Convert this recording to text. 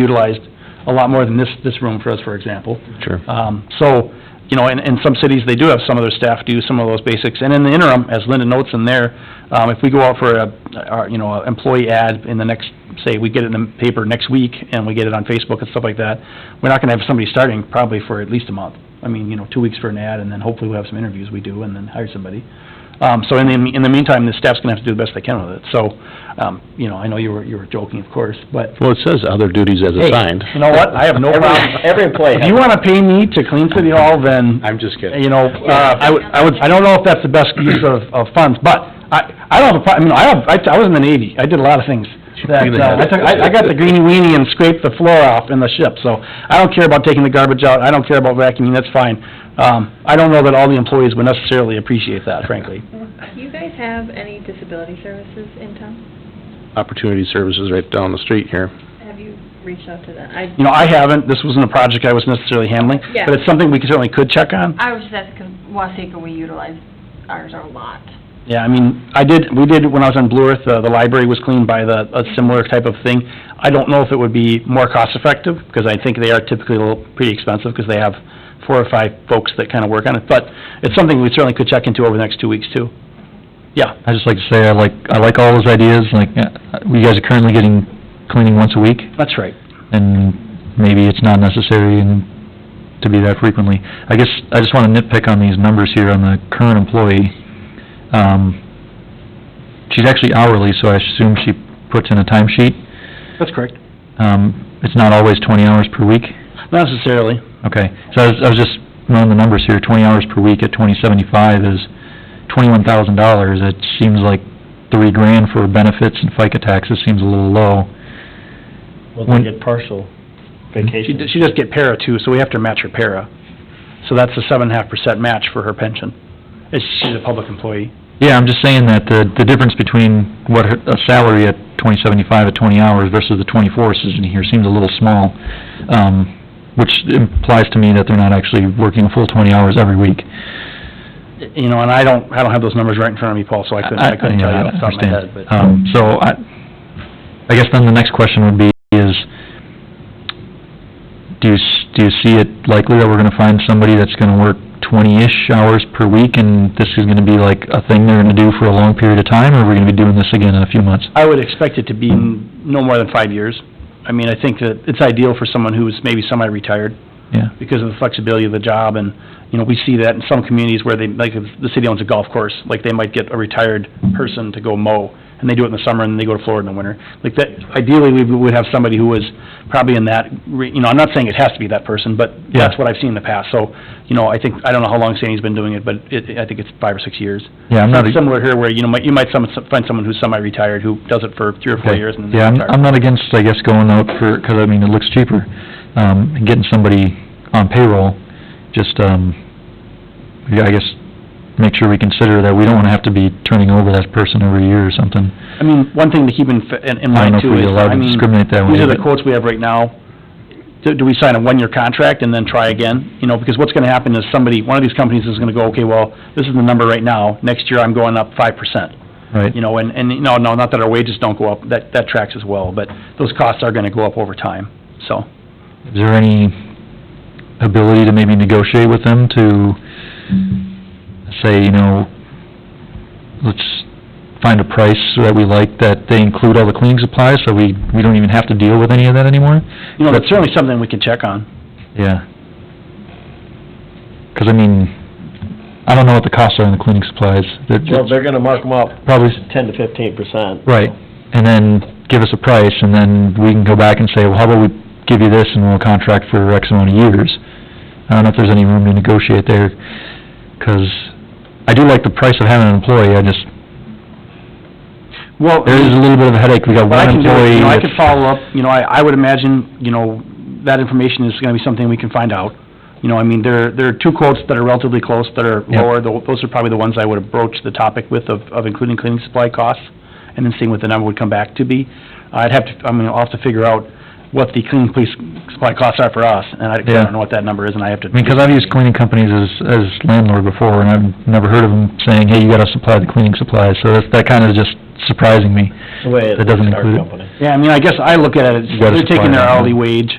utilized a lot more than this, this room for us, for example. Sure. Um, so, you know, in, in some cities, they do have some of their staff do some of those basics, and in the interim, as Linda notes in there, um, if we go out for a, our, you know, a employee ad in the next, say, we get it in the paper next week, and we get it on Facebook and stuff like that, we're not gonna have somebody starting probably for at least a month. I mean, you know, two weeks for an ad, and then hopefully we'll have some interviews we do, and then hire somebody. Um, so in the, in the meantime, the staff's gonna have to do the best they can with it, so, um, you know, I know you were, you were joking, of course, but Well, it says other duties as assigned. you know what, I have no problem. every employee If you wanna pay me to clean City Hall, then, I'm just kidding. you know, uh, I would, I would, I don't know if that's the best use of, of funds, but I, I don't have a pro, I mean, I have, I, I was in the Navy, I did a lot of things. That, uh, I took, I, I got the greenie weenie and scraped the floor off in the ship, so I don't care about taking the garbage out, I don't care about vacuuming, that's fine. Um, I don't know that all the employees would necessarily appreciate that, frankly. Do you guys have any disability services in town? Opportunity Services right down the street here. Have you reached out to them? I, You know, I haven't, this wasn't a project I was necessarily handling, Yeah. but it's something we could- certainly could check on. I was just asking, because Waseca, we utilize ours a lot. Yeah, I mean, I did, we did, when I was on Blue Earth, uh, the library was cleaned by the, a similar type of thing. I don't know if it would be more cost-effective, because I think they are typically a little, pretty expensive, because they have four or five folks that kind of work on it, but it's something we certainly could check into over the next two weeks, too. Yeah, i just like to say, I like, I like all those ideas, like, uh, you guys are currently getting cleaning once a week, that's right. and maybe it's not necessary and to be that frequently. I guess, I just wanna nitpick on these numbers here on the current employee. Um, she's actually hourly, so I assume she puts in a timesheet. That's correct. Um, it's not always twenty hours per week. Not necessarily. Okay, so I was, I was just running the numbers here, twenty hours per week at twenty seventy-five is twenty-one thousand dollars. It seems like three grand for benefits and FICA taxes seems a little low. Well, When- they get partial She, vacation. d- she does get para, too, so we have to match her para. So that's a seven and a half percent match for her pension. It's, she's a public employee. Yeah, I'm just saying that the, the difference between what her- a salary at twenty seventy-five at twenty hours versus the twenty-four is in here seems a little small, um, which implies to me that they're not actually working a full twenty hours every week. You know, and I don't, I don't have those numbers right in front of me, Paul, so I couldn't, I couldn't tell you off the top of my head, but. Um, so I, I guess then the next question would be is, do you, s- do you see it likely that we're gonna find somebody that's gonna work twenty-ish hours per week and this is gonna be like a thing they're gonna do for a long period of time, or are we gonna be doing this again in a few months? I would expect it to be n- no more than five years. I mean, I think that it's ideal for someone who is maybe semi-retired Yeah, because of the flexibility of the job, and, you know, we see that in some communities where they, like, if the city owns a golf course, like, they might get a retired person to go mow, and they do it in the summer, and then they go to Florida in the winter. Like, that, ideally, we would have somebody who is probably in that, re you know, I'm not saying it has to be that person, but that's what I've seen in the past. So, you know, I think, I don't know how long Sandy's been doing it, but it, I think it's five or six years. yeah, I'm not, Not a- similar here where, you know, might- you might some- find someone who's semi-retired who does it for three or four Okay. years and then they yeah, I'm, retire. I'm not against, I guess, going out for, 'cause I mean, it looks cheaper, um, and getting somebody on payroll, just, um, yeah, I guess, make sure we consider that we don't wanna have to be turning over that person every year or something. I mean, one thing to keep in, fa- in in I don't know mind if too we is, allow I to mean, discriminate that way. these are the but- quotes we have right now. Do, do we sign a one-year contract and then try again? You know, because what's gonna happen is somebody, one of these companies is gonna go, okay, well, this is the number right now, next year I'm going up five percent. Right, You know, and, and, no, no, not that our wages don't go up, that, that tracks as well, but those costs are gonna go up over time, so. is there any ability to maybe negotiate with them to say, you know, let's find a price that we like, that they include all the cleaning supplies, so we, we don't even have to deal with any of that anymore? You know, that's certainly something we can check on. Yeah. 'Cause I mean, I don't know what the costs are on the cleaning supplies. They're- Well, they're gonna mark them up Probably, ten to fifteen percent. right, and then give us a price, and then we can go back and say, well, how about we give you this and we'll contract for X amount of years? I don't know if there's any room to negotiate there, 'cause I do like the price of having an employee, I just, Well, there is a little bit of a headache, we got But I one can do, it, employee. you know, I that's- could follow up, you know, I, I would imagine, you know, that information is gonna be something we can find out. You know, I mean, there, there are two quotes that are relatively close, that are Yeah. lower, Tho- those are probably the ones I would approach the topic with of, of including cleaning supply costs, and then seeing what the number would come back to be. I'd have to, I mean, I'll have to figure out what the cleaning police supply costs are for us, and I 'cause I Yeah. don't know what that number is, and I have to. I mean, 'cause I've used cleaning companies as, as landlord before, and I've never heard of them saying, hey, you gotta supply the cleaning supplies, so that's, that kinda just surprising me. the way it That doesn't is at our include it? company. Yeah, I mean, I guess I look at it, You it's- gotta they're taking their supply it, huh? hourly wage,